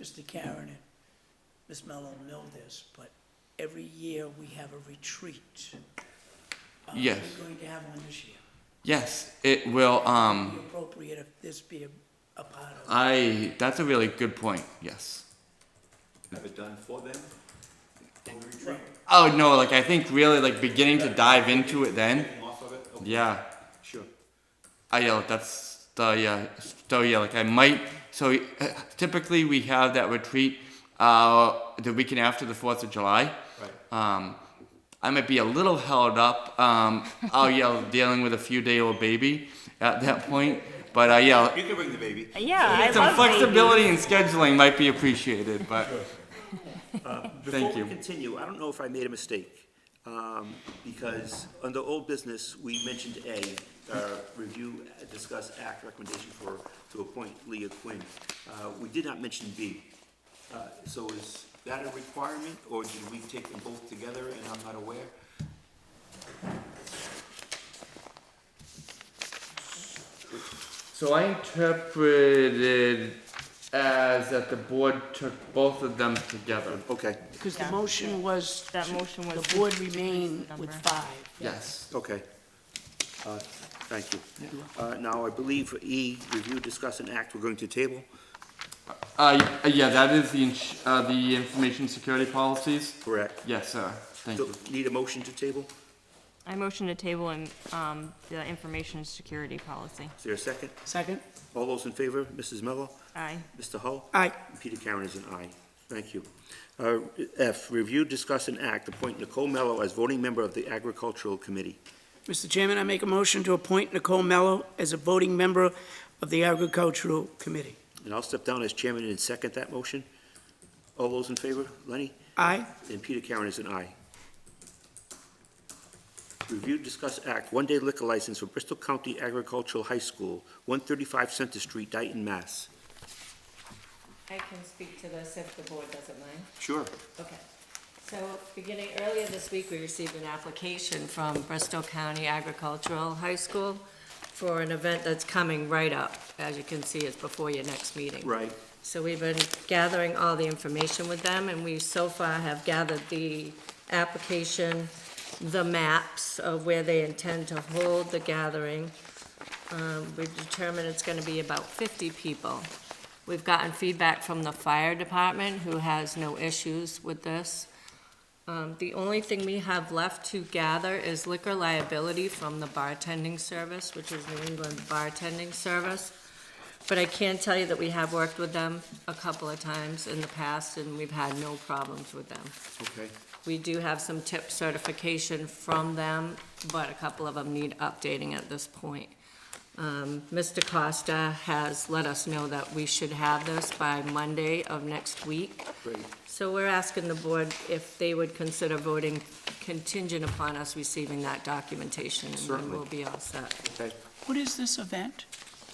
Mr. Karen and Ms. Mello know this, but every year we have a retreat. Uh, Yes. We're going to have one this year. Yes, it will. Be Um, appropriate if this be a, a part of. I. That's a really good point. Yes. Have it done for them? Oh no! Like I think really like beginning to dive into it then. Them Off of it? Okay, Yeah. Sure. I yeah. That's the yeah. So yeah. Like I might. So uh, typically we have that retreat uh, the weekend after the Fourth of July. Right. Um, I might be a little held up. Um, I'll yell dealing with a few day old baby at that point. But uh, yeah, You can bring the baby. Yeah, I some love flexibility in scheduling might be appreciated. But Thank Uh, Before you. we continue, I don't know if I made a mistake, um, because under old business, we mentioned A, uh, review, uh, discuss act recommendation for, to appoint Leah Quinn. Uh, We did not mention B. Uh, So is that a requirement, or did we take them both together and I'm not aware? so I interpreted as that the board took both of them together. Okay, Because the Yeah. motion was. That to- motion was The board to increase remain the with number. five. Yes. okay. Uh, Thank you. Uh, Now, I believe for E, review, discuss, and act, we're going to table. Uh, y- yeah, that is the ins- uh, the information security policies. Correct. Yes, sir. Thank So you. Need a motion to table? I motion to table in, um, the information security policy. Is there a second? Second? All those in favor, Mrs. Mello, Aye. Mr. Hull? Aye. Peter Karen is an aye. Thank you. Uh, F, review, discuss, and act, appoint Nicole Mello as voting member of the Agricultural Committee. Mr. Chairman, I make a motion to appoint Nicole Mello as a voting member of the Agricultural Committee. And I'll step down as chairman and second that motion. All those in favor, Lenny? Aye? And Peter Karen is an aye. Review, discuss, act, one-day liquor license for Bristol County Agricultural High School, 135 Center Street, Dayton, Mass. I can speak to this if the board doesn't mind. Sure. Okay. So beginning earlier this week, we received an application from Bristol County Agricultural High School for an event that's coming right up. As you can see, it's before your next meeting. Right. So we've been gathering all the information with them, and we so far have gathered the application, the maps of where they intend to hold the gathering. Um, We've determined it's gonna be about fifty people. We've gotten feedback from the fire department, who has no issues with this. Um, The only thing we have left to gather is liquor liability from the bartending service, which is New England Bartending Service. But I can tell you that we have worked with them a couple of times in the past, and we've had no problems with them. Okay. We do have some tip certification from them, but a couple of them need updating at this point. Um, Mr. Costa has let us know that we should have this by Monday of next week. Great. So we're asking the board if they would consider voting contingent upon us receiving that documentation. And Certainly. we will be all set. Okay. What is this event?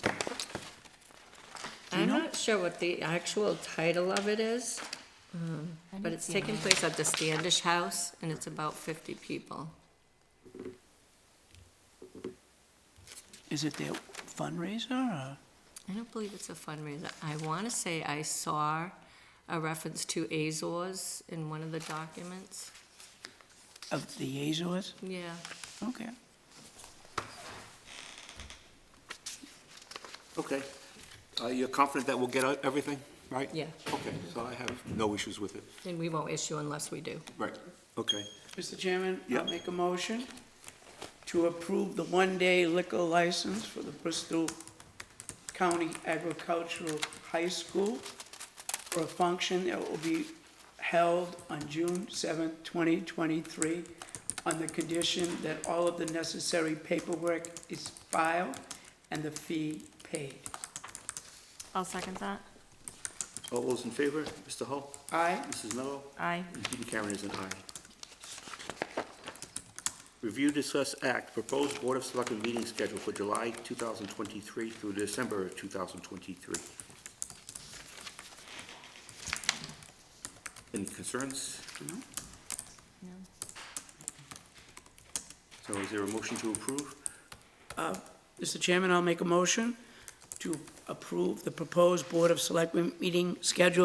Mm-hmm. I'm not sure what the actual title of it is, um, but it's taking place at the Standish House, and it's about fifty people. Is it their fundraiser or? I don't believe it's a fundraiser. I want to say I saw a reference to Azores in one of the documents. Of the Azores? Yeah. Okay. Okay. Uh, You're confident that we'll get out everything, right? Yeah. Okay, so I have no issues with it. And we won't issue unless we do. Right. Okay. Mr. Chairman, Yeah. I'll make a motion to approve the one-day liquor license for the Bristol County Agricultural High School for a function that will be held on June seventh, twenty twenty-three, on the condition that all of the necessary paperwork is filed and the fee paid. I'll second that. All those in favor, Mr. Hull, Aye? Mrs. Mello, Aye. and Peter Karen is an aye. Review, discuss, act, proposed Board of Selectmen meeting schedule for July 2023 through December of 2023. Any concerns? No. So is there a motion to approve? Mr. Chairman, I'll make a motion to approve the proposed Board of Selectmen meeting schedule